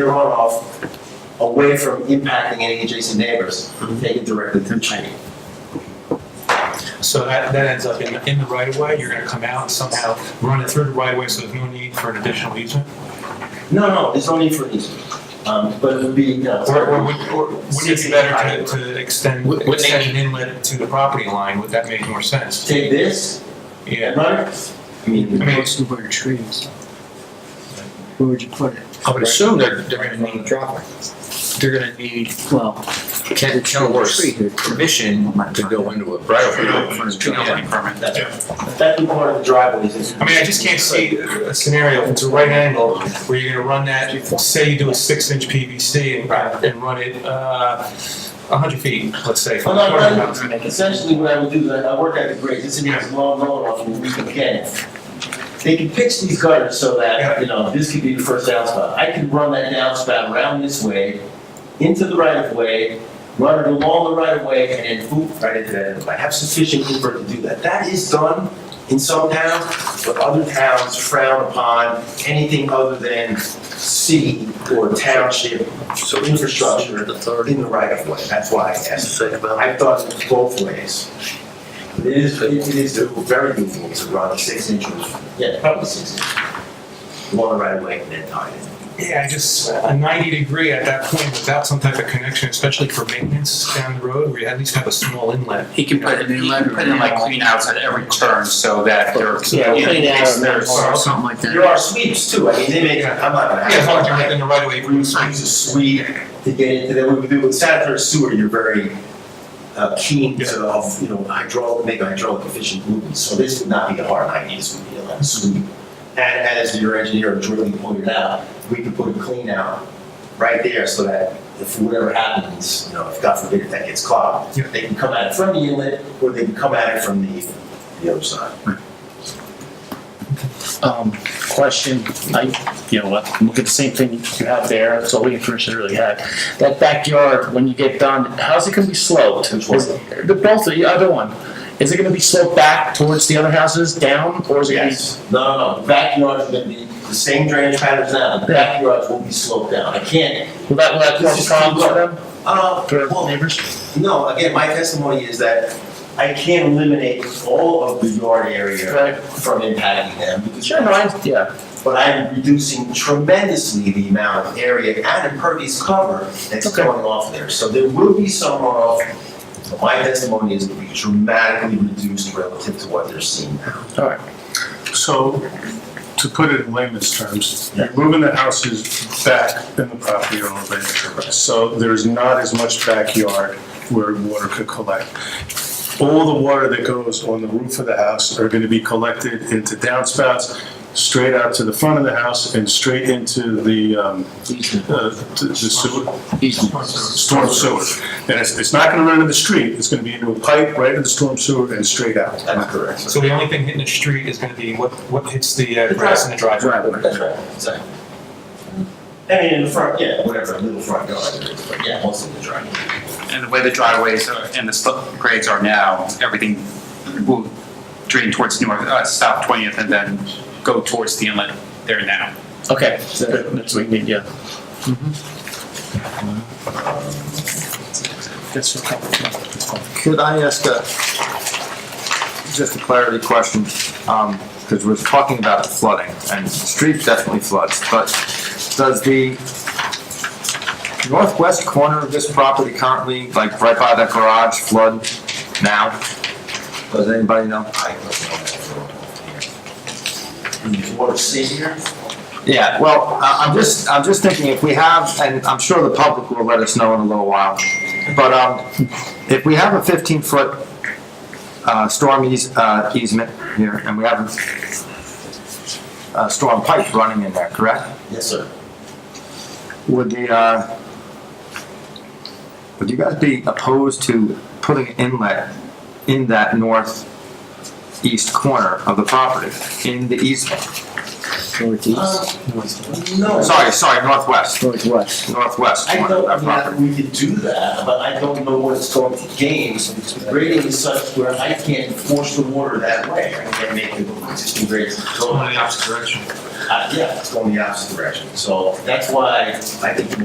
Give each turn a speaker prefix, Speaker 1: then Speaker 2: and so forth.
Speaker 1: your runoff away from impacting any adjacent neighbors, take it directly to the drain.
Speaker 2: So that, that ends up in, in the right of way, you're gonna come out and somehow, run it through the right of way, so there's no need for an additional easement?
Speaker 1: No, no, there's no need for an easement, um, but it would be, you know.
Speaker 2: Or, or would, or would it be better to, to extend,
Speaker 3: Would- would they-
Speaker 2: extend an inlet to the property line, would that make more sense?
Speaker 1: Take this,
Speaker 2: Yeah,
Speaker 1: right? I mean,
Speaker 2: I mean-
Speaker 4: Most of our trees. Where would you put it?
Speaker 3: I would assume they're, they're gonna need, they're gonna need
Speaker 4: Well,
Speaker 3: Ken
Speaker 4: Worse.
Speaker 3: Keller's permission to go into a right of way in front of the town.
Speaker 1: that's, that'd be part of the driveways. is-
Speaker 2: I mean, I just can't see a scenario, if it's a right angle, where you're gonna run that, say you do a six inch PVC and, and run it, uh, a hundred feet, let's say. from
Speaker 1: Well,
Speaker 2: the
Speaker 1: no,
Speaker 2: corner.
Speaker 1: no, essentially what I would do, is I work at the grade, this is long, long off and we can get it. They can pitch these gutters so that, you know, this could be the first downspout. I could run that downspout around this way, into the right of way, run it along the right of way, and then boop, right into that. I have sufficient Cooper to do that. That is done in some towns, but other towns frown upon anything other than city or township infrastructure
Speaker 3: authority.
Speaker 1: in the right of way. That's why I asked.
Speaker 3: Say about.
Speaker 1: I thought it was both ways. It is, it is doable, very doable to run six inches. Yeah, probably six inches. One right away and then tie it.
Speaker 2: Yeah, I just, a 90 degree at that point without some type of connection, especially for maintenance down the road, where you at least have a small inlet.
Speaker 5: He can put, he can put in like clean outs at every turn so that there.
Speaker 1: Yeah, clean out and then-
Speaker 5: There's-
Speaker 4: something like
Speaker 1: There
Speaker 4: that.
Speaker 1: are sweeps too, I mean, they make, I'm not gonna.
Speaker 2: Yeah, as long as you're within the right of way,
Speaker 1: We would use a sweep to get into that, we would do with sanitary sewer, you're very uh, keen to, of, you know, hydraulic, make hydraulic efficient movements. So this would not be a hard idea, this would be a like sweep. And as your engineer Jordan pointed out, we could put a clean out right there so that if whatever happens, you know, if God forbid that gets clogged,
Speaker 2: Yeah.
Speaker 1: they can come at it from the inlet or they can come at it from the, the other side.
Speaker 6: Um, question, I, you know, what, look at the same thing you have there, that's all the information I really had. That backyard, when you get done, how's it gonna be sloped?
Speaker 1: Which one?
Speaker 6: Is- The, both, the other one, is it gonna be sloped back towards the other houses, down, or is it gonna be?
Speaker 1: Yes, no, no, no, the backyards are gonna be the same drainage patterns now, the backyards will be sloped down, I can't.
Speaker 6: Will that, will that
Speaker 1: This
Speaker 6: cause
Speaker 1: is
Speaker 6: problems for
Speaker 1: too
Speaker 6: them,
Speaker 1: Uh,
Speaker 6: for
Speaker 1: well,
Speaker 6: neighbors?
Speaker 1: no, again, my testimony is that I can't eliminate all of the yard area
Speaker 6: Right.
Speaker 1: from impacting them. because-
Speaker 6: Sure, no, I, yeah,
Speaker 1: But I'm reducing tremendously the amount of area and impervious cover that's
Speaker 6: Okay.
Speaker 1: going off there. So there will be some runoff, but my testimony is it'll be dramatically reduced relative to what they're seeing now.
Speaker 6: alright,
Speaker 7: So, to put it in layman's terms, you're moving the houses back in the property owner later. So there's not as much backyard where water could collect. All the water that goes on the roof of the house are gonna be collected into downspouts, straight out to the front of the house and straight into the, um, uh, to the sewer, storm sewer. And it's, it's not gonna run into the street, it's gonna be into a pipe right into the storm sewer and straight out.
Speaker 1: That's correct.
Speaker 2: So the only thing hitting the street is gonna be what, what hits the uh, grass in the driveway.
Speaker 1: That's right, exactly. I mean, in the front, yeah, whatever, little front yard, there is, but yeah, most of the driveway.
Speaker 5: And the way the driveways are- and the slope grades are now, everything will drain towards north, uh, south 20th and then go towards the inlet there now.
Speaker 6: okay, so that's what we need, yeah.
Speaker 1: Mm-hmm.
Speaker 6: That's a couple, that's fine.
Speaker 3: Could I ask a, just a clarity question? Um, because we're talking about flooding and the street definitely floods, but does the northwest corner of this property currently, like right by that garage flood now? Does anybody know?
Speaker 1: I don't know that for- Water sitting here?
Speaker 3: Yeah, well, I- I'm just, I'm just thinking if we have, and I'm sure the public will let us know in a little while, but um, if we have a 15-foot uh, storm eas- uh, easement here, and we have a storm pipe running in there, correct?
Speaker 1: Yes, sir.
Speaker 3: Would the, uh, would you guys be opposed to putting an inlet in that northeast corner of the property, in the easement?
Speaker 4: northeast,
Speaker 1: No.
Speaker 3: Sorry, sorry, northwest,
Speaker 4: northwest.
Speaker 3: northwest.
Speaker 1: I
Speaker 3: corner
Speaker 1: don't,
Speaker 3: of
Speaker 1: I
Speaker 3: that
Speaker 1: mean,
Speaker 3: property.
Speaker 1: I- we could do that, but I don't know what it's going to gain. Grading is such where I can't force the water that way. I can't make the existing grades go.
Speaker 2: opposite direction.
Speaker 1: Uh, yeah, it's going the opposite direction. So that's why I think